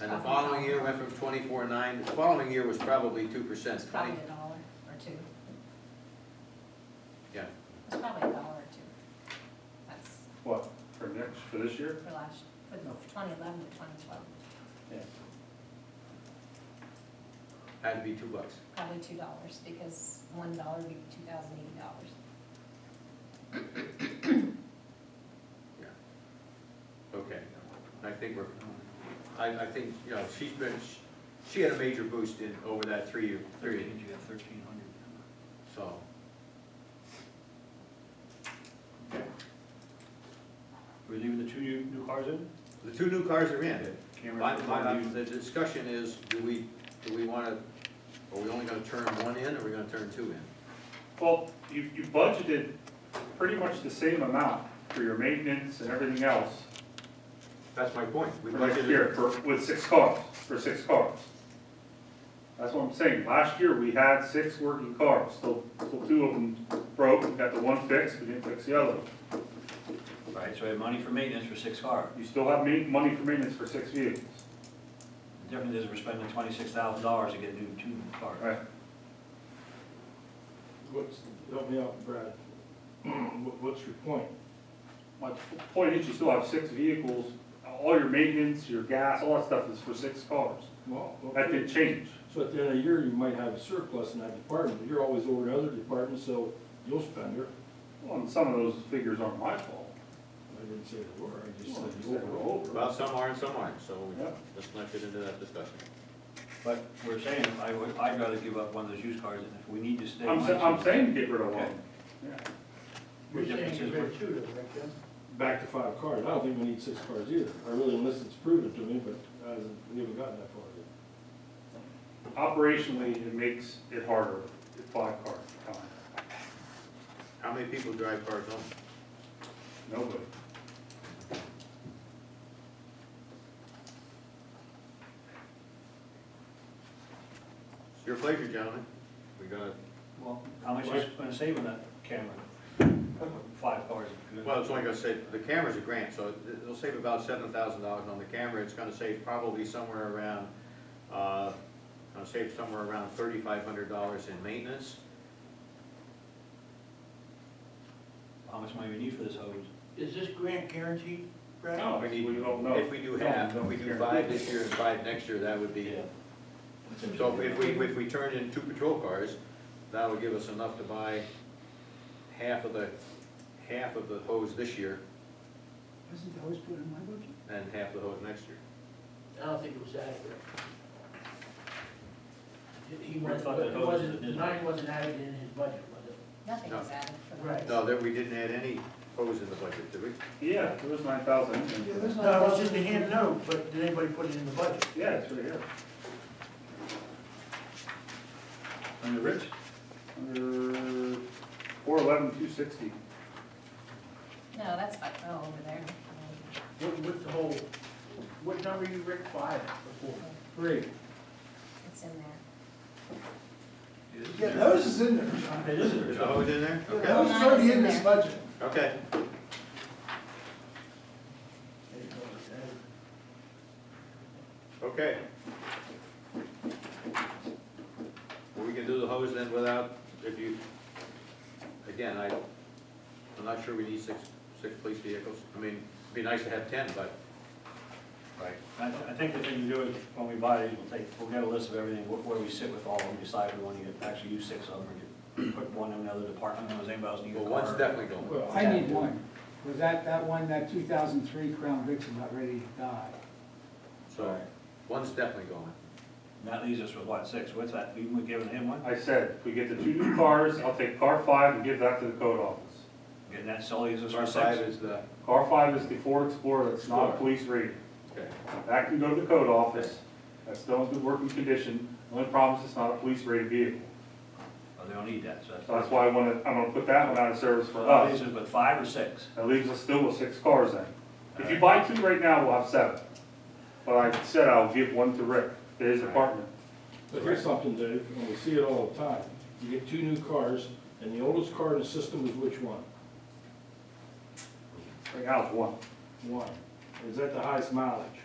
And the following year went from twenty-four nine, the following year was probably two percent, It's twenty, probably a dollar or two. yeah. It's probably a dollar or two. That's What, for next, for this year? for last, for the twenty eleven to twenty twelve, Yeah. Had to be two bucks. probably two dollars, because one dollar would be two thousand eighty dollars. Okay, I think we're, I, I think, you know, she's been, she- she had a major boost in, over that three-year period, Thirteen, you got thirteen hundred. so. We're leaving the two new, new cars in? The two new cars are in. Camera My, for my, you. the discussion is, do we, do we wanna, are we only gonna turn one in, or are we gonna turn two in? Well, you, you budgeted pretty much the same amount for your maintenance and everything else That's my point. We for next budgeted- year, for, with six cars, for six cars. That's what I'm saying, last year we had six working cars, still, still two of them broke, we got the one fixed, we didn't fix the other. Right, so I have money for maintenance for six cars. You still have ma- money for maintenance for six vehicles. The difference is we're spending twenty-six thousand dollars to get new, two new cars. Right. What's, help me out, Brad. What- What's your point? My p- point is, you still have six vehicles, all your maintenance, your gas, all that stuff is for six cars. Well, That okay. did change. So at the end of the year, you might have a surplus in that department, but you're always over in other departments, so you'll spend it. Well, and some of those figures aren't my fault. I didn't say the word, I just Well, said it's overall. over. Well, some are and some aren't, so we- Yeah. let's not get into that discussion. But we're saying, I would, I'd rather give up one of those used cars, and if we need to stay. I'm, sa- I'm saying get rid of Okay. one. Yeah. We're different, You're saying we're- you're two to Rick, then? Back to five cars, I don't think we need six cars either, I really, unless it's proven to me, but I haven't- we haven't gotten that far yet. Operationally, it makes it harder if five cars come. How many people drive cars home? Nobody. It's your pleasure, gentlemen. We gotta, Well, how much is gonna save on that camera? Five cars. well, it's only gonna save, the camera's a grant, so it- it'll save about seven thousand dollars on the camera. It's gonna save probably somewhere around, uh, gonna save somewhere around thirty-five hundred dollars in maintenance. How much money we need for this hose? Is this grant guaranteed, Brad? No, we don't know. If we do half, if we do five this year and five next year, that would be, so if we, if we turn in two patrol cars, that would give us enough to buy half of the, half of the hose this year Wasn't the hose put in my budget? and half the hose next year. I don't think it was accurate. He I wasn't, thought that it hose was in his wasn't, mine wasn't added in his budget, was it? Nothing No. was added for the. Right. No, that we didn't add any hose in the budget, did we? Yeah, there was nine thousand. No, it was just a hand note, but did anybody put it in the budget? Yeah, it's right here. Under Rich? Under four eleven, two sixty. No, that's like, oh, over there. What, what the whole, what number you Rick five before? Three. It's in there. Yeah, those is in there, John. It is Is the hose in there? Yeah, Okay, Those is already in this budget. okay. There you go, it's added. Okay. Well, we can do the hose then without, if you, again, I, I'm not sure we need six, six police vehicles. I mean, it'd be nice to have ten, but Right. I, I think the thing to do is, when we buy these, we'll take, we'll get a list of everything, where, where we sit with all of them, decide we wanna get, actually use six of them, or get, put one in another department, and does anybody else need a well, car? one's definitely going. Well, I need one, because that, that one, that two thousand three Crown Vic's about ready to die. So, one's definitely going. And that leaves us with what, six, what's that, we, we giving him one? I said, if we get the two new cars, I'll take car five and give that to the code office. And that still leaves us Our with five six. is the, Car five is the Ford Explorer, that's not Explorer. a police rated. okay, That can go to the code office, that's still in good working condition, The only problem is it's not a police rated vehicle. Oh, they don't need that, so that's. So that's why I wanna, I'm gonna put that one out of service for So that leaves us. us with five or six, That leaves us still with six cars then. If you buy two right now, we'll have seven. But I said I'll give one to Rick, to his apartment. But here's something, Dave, and we see it all the time, you get two new cars, and the oldest car in the system is which one? Right now it's one. One. Is that the highest mileage?